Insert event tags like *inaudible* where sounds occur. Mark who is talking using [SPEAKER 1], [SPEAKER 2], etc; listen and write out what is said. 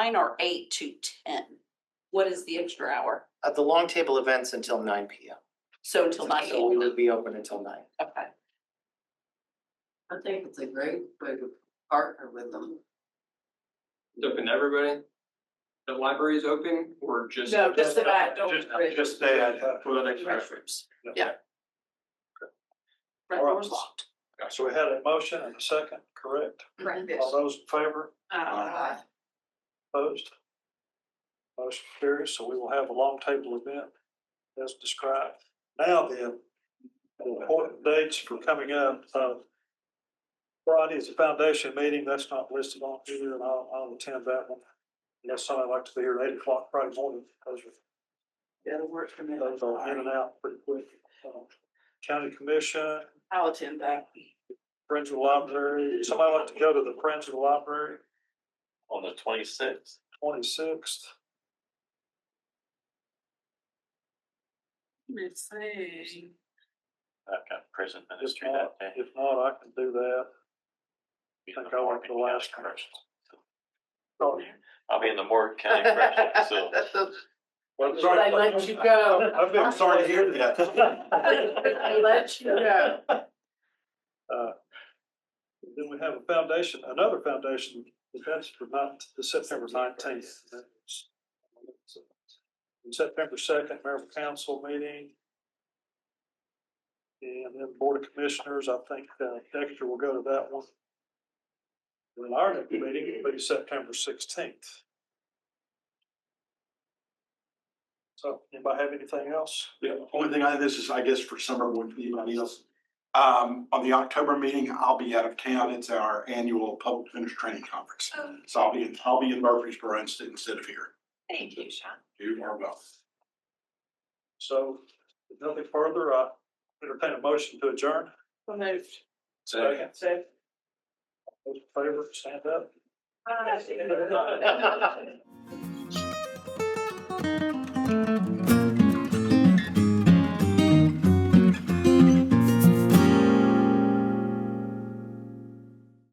[SPEAKER 1] nine or eight to ten? What is the extra hour?
[SPEAKER 2] At the long table events until nine P M.
[SPEAKER 1] So until nine
[SPEAKER 2] So we
[SPEAKER 1] AM,
[SPEAKER 2] will be open until nine.
[SPEAKER 1] okay.
[SPEAKER 3] I think it's a great way to partner with them.
[SPEAKER 4] It's open to everybody. The library is open or just?
[SPEAKER 1] No, just the back door.
[SPEAKER 5] Just, just that.
[SPEAKER 4] For the uh, next restrooms.
[SPEAKER 1] Front
[SPEAKER 5] Alright.
[SPEAKER 1] door's locked.
[SPEAKER 5] So we had a motion and a second, correct?
[SPEAKER 1] Correct.
[SPEAKER 5] All those in favor,
[SPEAKER 1] Uh,
[SPEAKER 5] opposed? Motion carries, so we will have a long table event as described. Now then, important dates for coming up, uh, Friday is the foundation meeting, that's not listed on here, and I'll, I'll attend that one. Unless somebody would like to be here at eight o'clock Friday morning, those are
[SPEAKER 3] That'll work for me.
[SPEAKER 5] Those are in and out pretty quick. Um, County Commission,
[SPEAKER 3] I'll attend that.
[SPEAKER 5] Friends of the Library, somebody like to go to the Friends of the Library,
[SPEAKER 6] on the twenty-sixth.
[SPEAKER 5] twenty-sixth.
[SPEAKER 3] Let's see.
[SPEAKER 6] I've got prison
[SPEAKER 5] If
[SPEAKER 6] ministry
[SPEAKER 5] not,
[SPEAKER 6] that day.
[SPEAKER 5] if not, I can do that.
[SPEAKER 6] Be in
[SPEAKER 5] think I went
[SPEAKER 6] Morgan
[SPEAKER 5] the last
[SPEAKER 6] County
[SPEAKER 5] time.
[SPEAKER 6] Corrections.
[SPEAKER 5] Oh,
[SPEAKER 6] I'll be in the Morgan
[SPEAKER 5] *laughs*
[SPEAKER 6] County Correctional Facility.
[SPEAKER 5] well,
[SPEAKER 3] Should I let you
[SPEAKER 5] *laughs*
[SPEAKER 3] go?
[SPEAKER 5] I've been sorry to hear
[SPEAKER 3] I
[SPEAKER 5] that.
[SPEAKER 3] let you go.
[SPEAKER 5] Uh, Then we have a foundation, another foundation, that's for ninth, the September nineteenth. September second, mayor council meeting. And then board of commissioners, I think, uh, Dexter will go to that one. Then our next meeting will be September sixteenth. So, anybody have anything else?
[SPEAKER 7] Yeah, only thing I, this is, I guess, for summer would be anybody else. Um, on the October meeting, I'll be out of town. It's our annual public defender's training conference.
[SPEAKER 1] Oh.
[SPEAKER 7] So I'll be, in I'll be in Murfreesboro instead instead of here.
[SPEAKER 1] Thank you, Sean.
[SPEAKER 7] You are welcome.
[SPEAKER 5] So, if nothing further, I entertain a motion to adjourn.
[SPEAKER 3] So moved.
[SPEAKER 5] Second.
[SPEAKER 3] So.
[SPEAKER 5] *laughs* Those in favor, stand up.